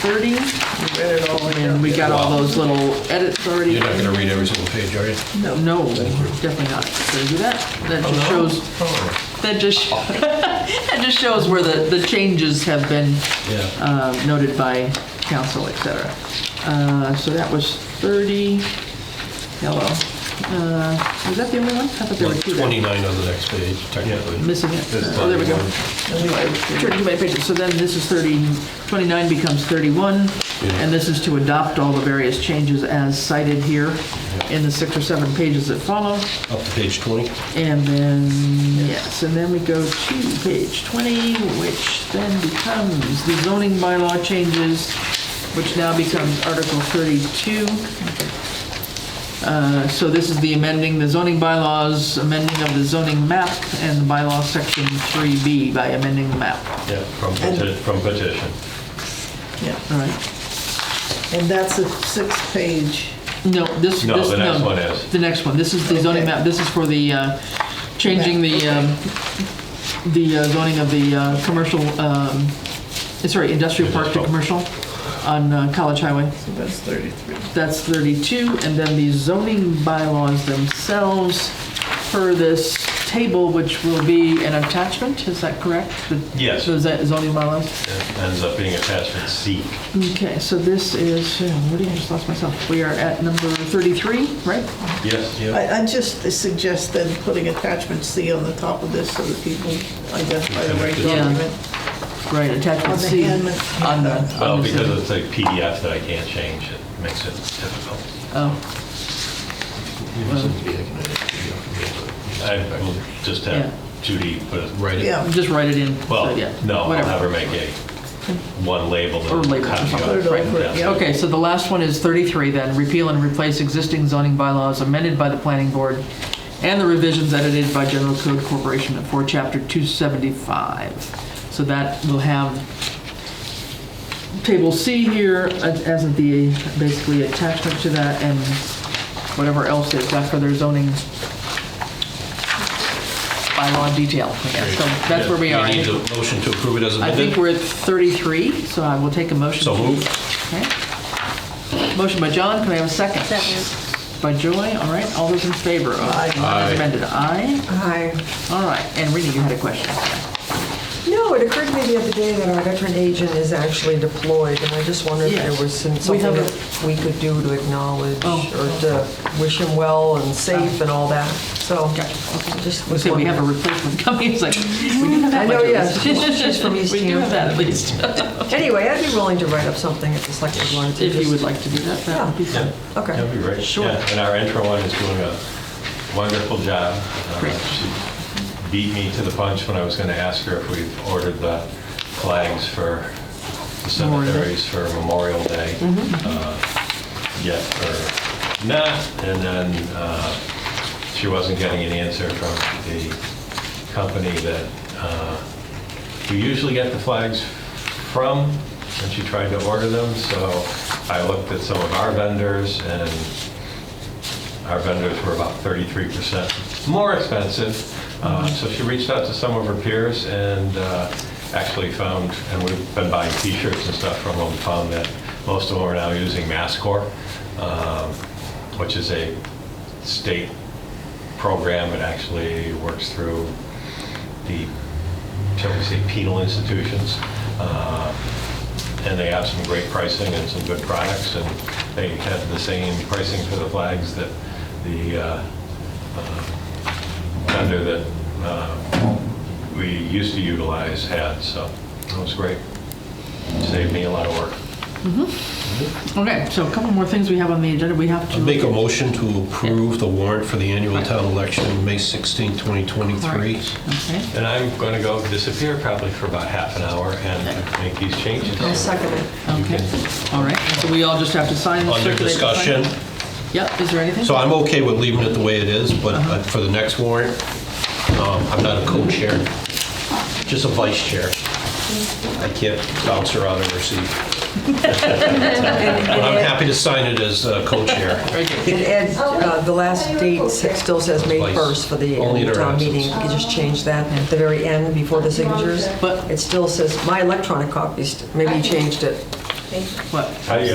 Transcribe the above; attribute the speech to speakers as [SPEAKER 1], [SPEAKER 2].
[SPEAKER 1] thirty, and we got all those little edits already.
[SPEAKER 2] You're not gonna read every single page, are you?
[SPEAKER 1] No, definitely not. So do that. That just shows,
[SPEAKER 2] Oh,
[SPEAKER 1] that just, that just shows where the, the changes have been
[SPEAKER 2] Yeah.
[SPEAKER 1] uh, noted by council, et cetera. Uh, So that was 30, yellow. Uh, Was that the only one? I thought there were two there.
[SPEAKER 2] Twenty-nine on the next page, technically.
[SPEAKER 1] Missing it.
[SPEAKER 2] There's
[SPEAKER 1] Oh, there we go.
[SPEAKER 2] 31.
[SPEAKER 1] Anyway, Sure, too many pages. So then this is 30, 29 becomes 31, and this is to adopt all the various changes as cited here in the six or seven pages that follow.
[SPEAKER 2] Up to page twenty.
[SPEAKER 1] And then, yes, and then we go to page 20, which then becomes the zoning bylaw changes, which now becomes Article 32. Uh, So this is the amending the zoning bylaws, amending of the zoning map, and the bylaw section 3B by amending the map.
[SPEAKER 3] Yeah, from peti- from petition.
[SPEAKER 4] Yeah,
[SPEAKER 1] All right.
[SPEAKER 4] and that's a six-page,
[SPEAKER 1] No, this, this, no.
[SPEAKER 3] No, the next one is.
[SPEAKER 1] The next one. This is the zoning
[SPEAKER 4] Okay.
[SPEAKER 1] map. This is for the, uh, changing the, um, the uh, zoning of the uh, commercial, um, sorry, industrial park to
[SPEAKER 3] Industrial.
[SPEAKER 1] commercial on uh, College Highway.
[SPEAKER 4] so that's 33.
[SPEAKER 1] That's 32. And then the zoning bylaws themselves per this table, which will be an attachment, is that correct? The-
[SPEAKER 3] Yes.
[SPEAKER 1] The zo- zoning bylaws?
[SPEAKER 3] It Ends up being attachment C.
[SPEAKER 1] Okay, so this is, yeah, what do you, I just lost myself. We are at number 33, right?
[SPEAKER 3] Yes,
[SPEAKER 4] I, I just suggest then putting attachment C on the top of this so that people identify the right
[SPEAKER 1] Yeah.
[SPEAKER 4] document.
[SPEAKER 1] Right,
[SPEAKER 4] On
[SPEAKER 1] attachment
[SPEAKER 4] the
[SPEAKER 1] C.
[SPEAKER 4] hand-
[SPEAKER 1] On the-
[SPEAKER 4] handout.
[SPEAKER 3] Well,
[SPEAKER 1] on the
[SPEAKER 3] Oh, because
[SPEAKER 1] zoning.
[SPEAKER 3] it's a PDF that I can't change, it makes it difficult.
[SPEAKER 1] Oh,
[SPEAKER 3] I will just
[SPEAKER 1] Yeah.
[SPEAKER 3] have Judy put it.
[SPEAKER 2] Write it.
[SPEAKER 4] Yeah,
[SPEAKER 1] Oh, just write it in. so,
[SPEAKER 3] Well,
[SPEAKER 1] yeah,
[SPEAKER 3] no, I'll
[SPEAKER 1] whatever.
[SPEAKER 3] have her make a, one label. and
[SPEAKER 1] Or label or
[SPEAKER 3] copy
[SPEAKER 1] something.
[SPEAKER 4] put it
[SPEAKER 3] of it.
[SPEAKER 4] over, it,
[SPEAKER 3] That's
[SPEAKER 4] yeah.
[SPEAKER 1] Okay, so the last one is 33 then, repeal and replace existing zoning bylaws amended by the planning board and the revisions edited by General Code Corporation for Chapter 275. So that will have Table C here uh, as the, basically attachment to that and whatever else is after their zoning bylaw detail, I guess. So that's where we
[SPEAKER 2] Yeah,
[SPEAKER 1] are.
[SPEAKER 2] You need a motion to approve it as
[SPEAKER 1] I think
[SPEAKER 2] amended.
[SPEAKER 1] we're at 33, so I will take a motion.
[SPEAKER 3] So
[SPEAKER 1] to-
[SPEAKER 3] moved.
[SPEAKER 1] Okay. Motion by John, can I have a second? Second. By Joy, all right, all those in favor? of-
[SPEAKER 4] Aye.
[SPEAKER 1] As amended, aye.
[SPEAKER 5] Hi.
[SPEAKER 1] All right, and Rita, you had a question.
[SPEAKER 5] No, it occurred to me the other day that our veteran agent is actually deployed, and I just wondered if
[SPEAKER 1] Yes.
[SPEAKER 5] there was some-
[SPEAKER 1] We
[SPEAKER 5] something
[SPEAKER 1] have a-
[SPEAKER 5] that we could do to acknowledge
[SPEAKER 1] Oh.
[SPEAKER 5] or to wish him well and safe and all that, so.
[SPEAKER 1] Gotcha.
[SPEAKER 5] Just
[SPEAKER 1] We
[SPEAKER 5] was
[SPEAKER 1] say we have a
[SPEAKER 5] wondering.
[SPEAKER 1] replacement coming, it's like, we do have that
[SPEAKER 5] I know,
[SPEAKER 1] much of
[SPEAKER 5] yes.
[SPEAKER 1] this.
[SPEAKER 5] She's from East
[SPEAKER 1] We do have
[SPEAKER 5] Hampton.
[SPEAKER 1] that at least,
[SPEAKER 5] Anyway, I'd be willing to write up something if the select board wanted to.
[SPEAKER 1] if you
[SPEAKER 5] just-
[SPEAKER 1] would like to do that, that would be
[SPEAKER 3] Yeah,
[SPEAKER 1] fun.
[SPEAKER 5] Okay.
[SPEAKER 3] That'd be great.
[SPEAKER 1] Sure.
[SPEAKER 3] Yeah, And our intro one is doing a wonderful job. Uh,
[SPEAKER 1] Great.
[SPEAKER 3] She beat me to the punch when I was going to ask her if we've ordered the flags for the
[SPEAKER 1] Memorial Day.
[SPEAKER 3] cemeteries for Memorial Day. uh, Yet, or not, and then uh, she wasn't getting an answer from the company that uh, we usually get the flags from, and she tried to order them, so I looked at some of our vendors, and our vendors were about 33% more expensive. Uh, So she reached out to some of her peers and uh, actually found, and we've been buying t-shirts and stuff from them, found that most of them are now using Masscore, um, which is a state program. It actually works through the, shall we say, penal institutions. Uh, and they have some great pricing and some good products, and they have the same pricing for the flags that the uh, uh, vendor that uh, we used to utilize had, so it was great. Saved me a lot of work.
[SPEAKER 1] Okay, so a couple more things we have on the agenda, we have to.
[SPEAKER 2] I'll Make a motion to approve the warrant for the annual town election, May 16, 2023.
[SPEAKER 1] Okay.
[SPEAKER 3] And I'm going to go disappear probably for about half an hour and make these changes.
[SPEAKER 5] I'll second it.
[SPEAKER 3] You
[SPEAKER 1] Okay, all right, so we all just have to sign this.
[SPEAKER 2] Under
[SPEAKER 1] circulate the sign.
[SPEAKER 2] discussion,
[SPEAKER 1] Yep, is there anything?
[SPEAKER 2] so I'm okay with leaving it the way it is, but
[SPEAKER 1] Uh-huh.
[SPEAKER 2] uh, for the next warrant, um, I'm not a co-chair, just a vice chair. I can't bounce around and receive. But I'm happy to sign it as uh, co-chair.
[SPEAKER 1] Okay.
[SPEAKER 5] And Ed, uh, the last date s- still says May
[SPEAKER 2] Twice.
[SPEAKER 5] 1st for the
[SPEAKER 2] Only in our
[SPEAKER 5] town meeting. You
[SPEAKER 2] absence.
[SPEAKER 5] can just change that at the very end before the signatures.
[SPEAKER 1] But-
[SPEAKER 5] It still says, my electronic copies, maybe you changed it.
[SPEAKER 6] Thank you.
[SPEAKER 1] What?
[SPEAKER 3] How do you